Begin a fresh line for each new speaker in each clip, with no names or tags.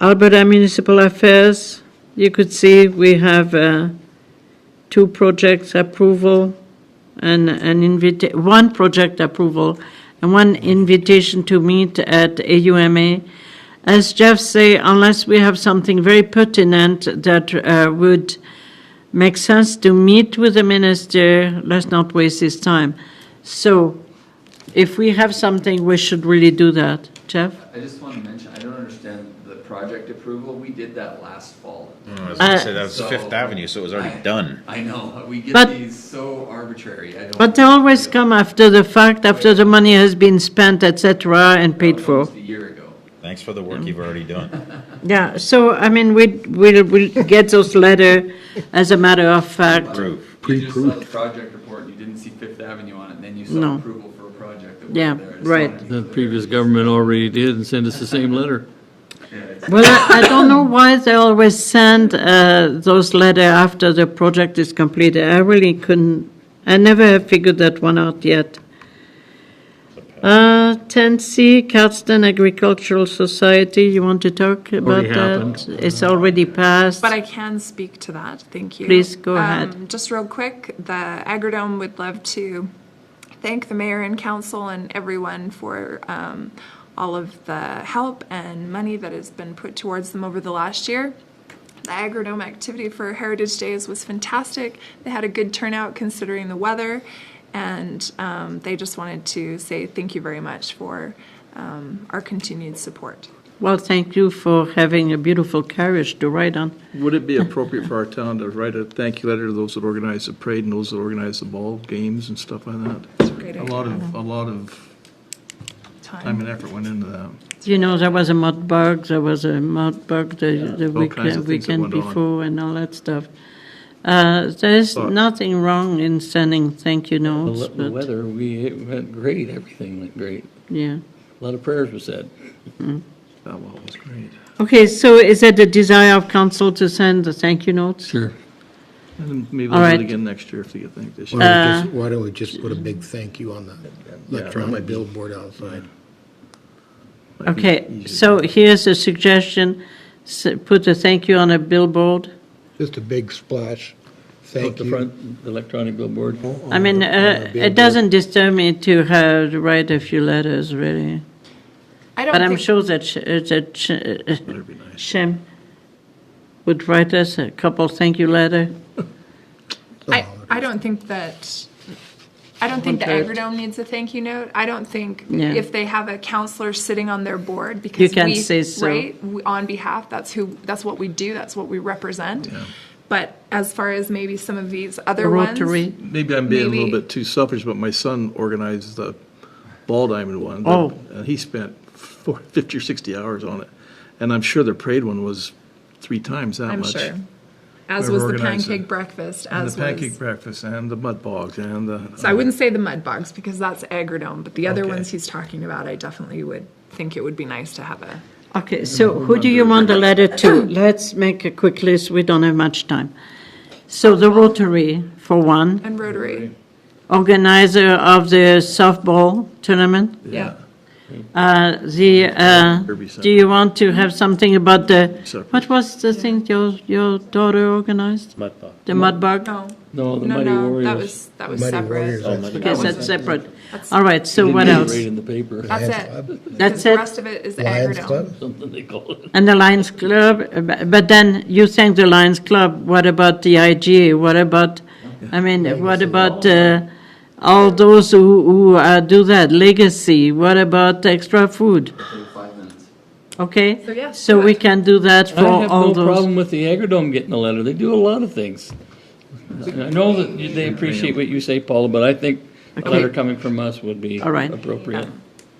Alberta Municipal Affairs, you could see we have uh, two projects approval and an invita, one project approval and one invitation to meet at AUMA. As Jeff say, unless we have something very pertinent that uh, would make sense to meet with the minister, let's not waste his time. So if we have something, we should really do that. Jeff?
I just want to mention, I don't understand the project approval. We did that last fall.
I Mm, was gonna
Uh,
say that was
So-
Fifth Avenue, so it was already
I-
done.
I know, we get
But-
these so arbitrary. I don't.
But they always come after the fact, after the money has been spent, et cetera, and paid for.
Almost a year ago.
Thanks for the work you've already done.
Yeah, so, I mean, we, we'll, we'll get those letter as a matter of fact.
Proof.
You just saw the project report and you didn't see Fifth Avenue on it, and then you
No.
saw approval for a project that
Yeah,
wasn't there. I just
right.
wanted to be
The
clear.
previous government already did and sent us the same letter.
Yeah, it's-
Well, I, I don't know why they always send, uh, those letter after the project is completed. I really couldn't, I never have figured that one out yet. Uh, ten C, Cardston Agricultural Society, you want to talk about
Already
that?
happened.
It's already passed.
But I can speak to that, thank you.
Please, go
Um,
ahead.
Just real quick, the Agrodome would love to thank the mayor and council and everyone for um, all of the help and money that has been put towards them over the last year. The Agrodome activity for Heritage Days was fantastic. They had a good turnout considering the weather, and um, they just wanted to say thank you very much for um, our continued support.
Well, thank you for having a beautiful carriage to ride on.
Would it be appropriate for our town to write a thank you letter to those that organize the parade and those that organize the ball games and stuff like that?
a great
A lot of, a lot of time and effort went into that.
You know, there was a mud bug, there was a mud bug the, the
All
weekend,
kinds of things that
weekend
went on.
before and all that stuff. Uh, there's
But-
nothing wrong in sending thank you
The
notes,
le- The
but,
weather, we, it went great, everything went great.
yeah.
A lot of prayers were said.
That wall was great.
Okay, so is it the desire of council to send the thank you notes?
Sure.
And then maybe
All
we'll do
right. Uh,
it again next year if they get thanked this
Why
year.
don't we just- why don't we just put a big thank you on the electronic billboard outside?
Might be
Okay,
easier.
so here's a suggestion, S- put a thank you on a billboard.
Just a big splash,
Up
thank
the
you.
front, the electronic billboard.
I mean, uh, it doesn't disturb me to have, to write a few letters, really.
I don't
But I'm
think-
sure that, sh- uh, that sh- uh,
That'd be nice.
Shem would write us a couple thank you letter.
I, I don't think that, I don't think the Agrodome needs a thank you note. I don't think
Yeah.
if they have a counselor sitting on their board because
You can't
we-
say so.
Right, we- on behalf, that's who, that's what we do, that's what we represent. But as far as maybe some of these other ones.
Rotary.
Maybe I'm being a little
Maybe-
bit too selfish, but my son organized the ball diamond one.
Oh.
And he spent four- 50 or 60 hours on it. And I'm sure the parade one was three times that
I'm
much.
sure. As
Whoever
was the
organized
pancake
it.
breakfast,
And
as
the pancake
was.
breakfast and the mud bogs and the.
So I wouldn't say the mud bugs because that's Agrodome, but the other
Okay.
ones he's talking about, I definitely would think it would be nice to have a.
Okay, so who do you want the letter to? Let's make a quick list, we don't have much time. So the Rotary, for one,
And Rotary,
organizer of the softball tournament.
yeah.
Uh, The, uh,
Derby Center.
do you want to have something about the,
Separate.
what was the thing your, your daughter organized?
Mudbug.
The Mudbug?
No,
No, the
no,
Mighty
no,
Warriors.
that was, that was
Mighty
separate.
Warriors, that's-
Okay, that's separate.
That's-
All right, so
Didn't
what
get it
else?
Right in the paper,
That's
Lions
it.
Club?
Um, That's
The
it?
rest of it is the
Lions
Agrodome.
Club?
something they call it.
And the Lions Club, uh, bu- but then you thank the Lions Club, what about the IGA? What about, I mean, what about uh, all those who, who uh, do that, legacy? What about extra food?
Okay, Five minutes.
Okay?
So, yeah,
So
do
we
it.
can do that
I
for
have
all
no
those.
problem with the Agrodome getting a letter. They do a lot of things. I know that they appreciate what you say, Paula, but I think a letter coming from us would be
All right.
appropriate.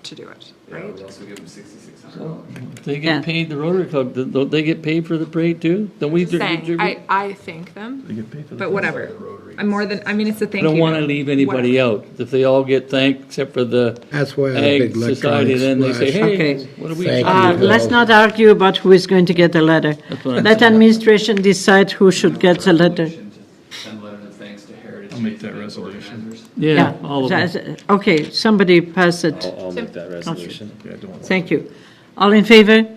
to do it,
Yeah,
right?
we also give them sixty-six hundred dollars.
They
Yeah.
get paid, the Rotary Club, th- don't they get paid for the parade too? Don't we?
Just
dri-
saying,
dri-
I, I thank them,
You get paid for
but whatever. I'm more than, I mean, it's a
I
thank you.
don't want to
note.
leave anybody
Whatever.
out. If they all get thanked except for the
That's why I have a
Ag
big
Society,
electronic
then they say,
splash.
Okay.
hey, what are we?
Thank
Ah,
Uh,
you.
Let's not argue about who is going to get the letter.
That's what I'm
Let
saying.
administration decide who should get the letter.
Motion to Send a letter of thanks to Heritage.
I'll make
Days
that
event
resolution.
organizers.
Yeah, all of them.
Okay, somebody pass it.
I'll, I'll make that resolution.
Yeah, I don't want-
Thank you. All in favor?